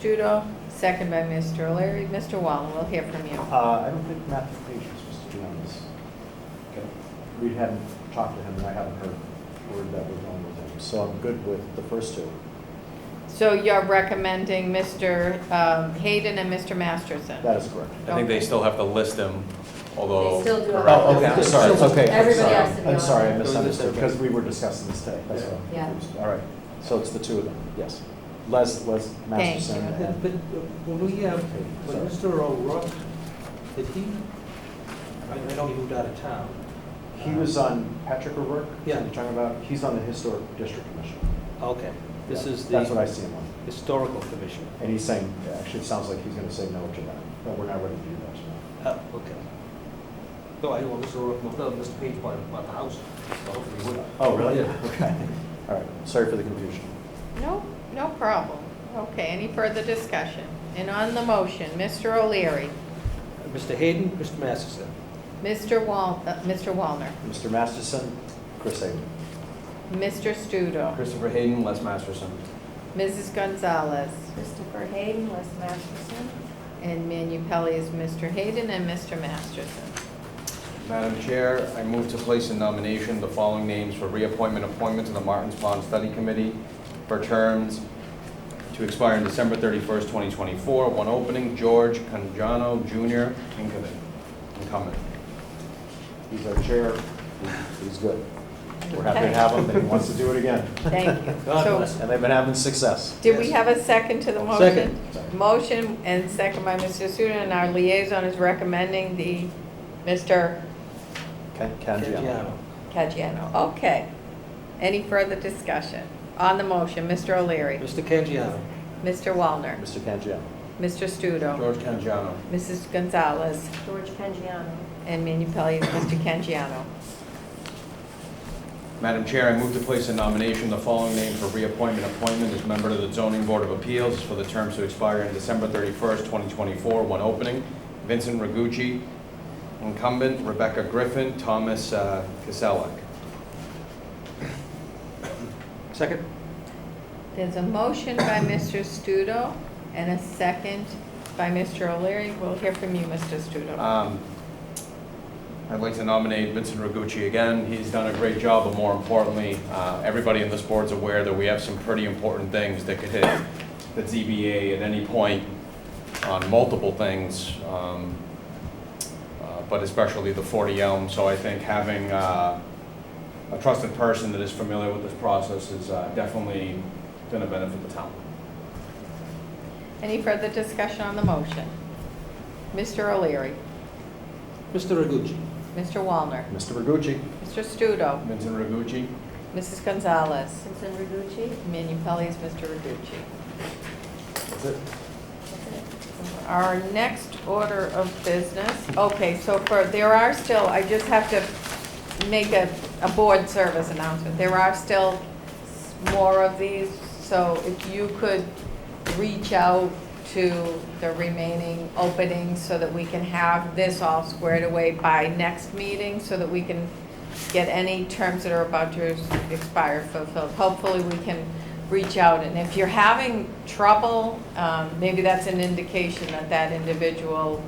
Studo, second by Mr. O'Leary. Mr. Wallen, we'll hear from you. Uh, I don't think Matt McPage was supposed to be on this. We hadn't talked to him, and I haven't heard word that we're going with him, so I'm good with the first two. So you're recommending Mr. um, Hayden and Mr. Masterson? That is correct. I think they still have to list them, although. They still do. Correct. Oh, okay, I'm sorry, okay. I'm Everybody sorry. has to be I'm on. sorry, I Those are the misunderstood, two. because we were discussing this today, that's all. Yeah. All right, so it's the two of them, yes. Les, Les Thank Masterson you. But and. but when we, um, when Mr. O'Rourke, did he, I I know he moved out of town. He was uh, on Patrick O'Rourke? is Yeah. who You're talking about, he's on the Historic District Commission. Okay, this Yeah, is That's what the I see him on. historical commission. And he's saying, actually, it sounds like he's gonna say no to that, but we're not ready to do that tonight. Oh, okay. No, I know Mr. O'Rourke moved out, Mr. Page bought, bought the house, so hopefully he would. Oh, really? Yeah. Okay, all right, sorry for the confusion. No, no problem. Okay, any further discussion? And on the motion, Mr. O'Leary, Mr. Hayden, Mr. Masterson. Mr. Wal, uh, Mr. Walner, Mr. Masterson, Chris Hayden. Mr. Studo, Christopher Hayden, Les Masterson. Mrs. Gonzalez, Christopher Hayden, Les Masterson. and Manu Pelley is Mr. Hayden and Mr. Masterson. Madam Chair, I move to place in nomination the following names for reappointment appointment to the Martins Pond Study Committee for terms to expire on December 31st, 2024. One opening, George Conjano Jr., incumbent. Incumbent. He's our chair, he's good. We're happy to have him, and he wants to do it again. Thank you. God So, bless. And they've been having success. Did we Yes. have a second to the motion? Second. Motion and second by Mr. Studo, and our liaison is recommending the Mr. Ken, Ken, yeah. Canjiano. Caggiano. Okay. Any further discussion? On the motion, Mr. O'Leary, Mr. Canjiano. Mr. Walner, Mr. Canjiano. Mr. Studo, George Conjano. Mrs. Gonzalez, George Pangiano. and Manu Pelley is Mr. Canjiano. Madam Chair, I move to place in nomination the following name for reappointment appointment as member to the Zoning Board of Appeals for the terms to expire on December 31st, 2024. One opening, Vincent Ragucci, incumbent, Rebecca Griffin, Thomas uh, Kiselak. Second? There's a motion by Mr. Studo and a second by Mr. O'Leary. We'll hear from you, Mr. Studo. Um, I'd like to nominate Vincent Ragucci again. He's done a great job, but more importantly, uh, everybody in this board's aware that we have some pretty important things that could hit the ZBA at any point on multiple things, um, uh, but especially the 40 Elm. So I think having uh, a trusted person that is familiar with this process is uh, definitely going to benefit the town. Any further discussion on the motion? Mr. O'Leary, Mr. Ragucci. Mr. Walner, Mr. Bergucci. Mr. Studo, Vincent Ragucci? Mrs. Gonzalez, Vincent Reducci. Manu Pelley is Mr. Reducci. That's it. Our next order of business, okay, so for, there are still, I just have to make a, a board service announcement. There are still s- more of these, so if you could reach out to the remaining openings so that we can have this all squared away by next meeting, so that we can get any terms that are about to expire fulfilled. Hopefully, we can reach out, and if you're having trouble, um, maybe that's an indication that that individual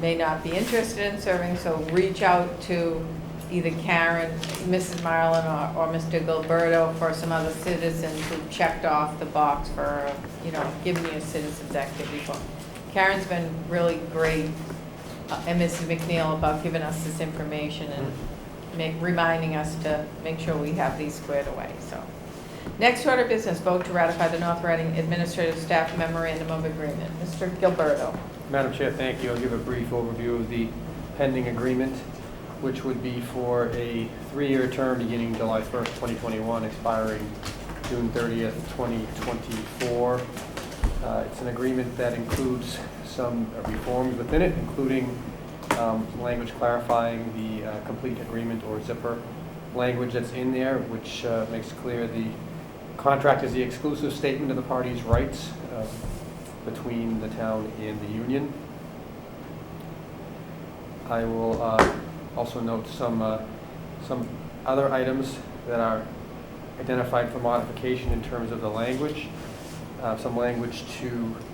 may not be interested in serving, so reach out to either Karen, Mrs. Marlin, or, or Mr. Gilberto for some other citizens who checked off the box for, you know, give me a citizen's activity book. Karen's been really great, uh, and Mrs. McNeil about giving us this information and make, reminding us to make sure we have these squared away, so. Next order of business, vote to ratify the North Reading Administrative Staff Memorandum of Agreement. Mr. Gilberto. Madam Chair, thank you. I'll give a brief overview of the pending agreement, which would be for a three-year term beginning July 1st, 2021, expiring June 30th, 2024. Uh, It's an agreement that includes some reforms within it, including um, some language clarifying the uh, complete agreement or zipper language that's in there, which uh, makes clear the contract is the exclusive statement of the parties' rights uh, between the town and the union. I will uh, also note some, uh, some other items that are identified for modification in terms of the language. Uh, Some language to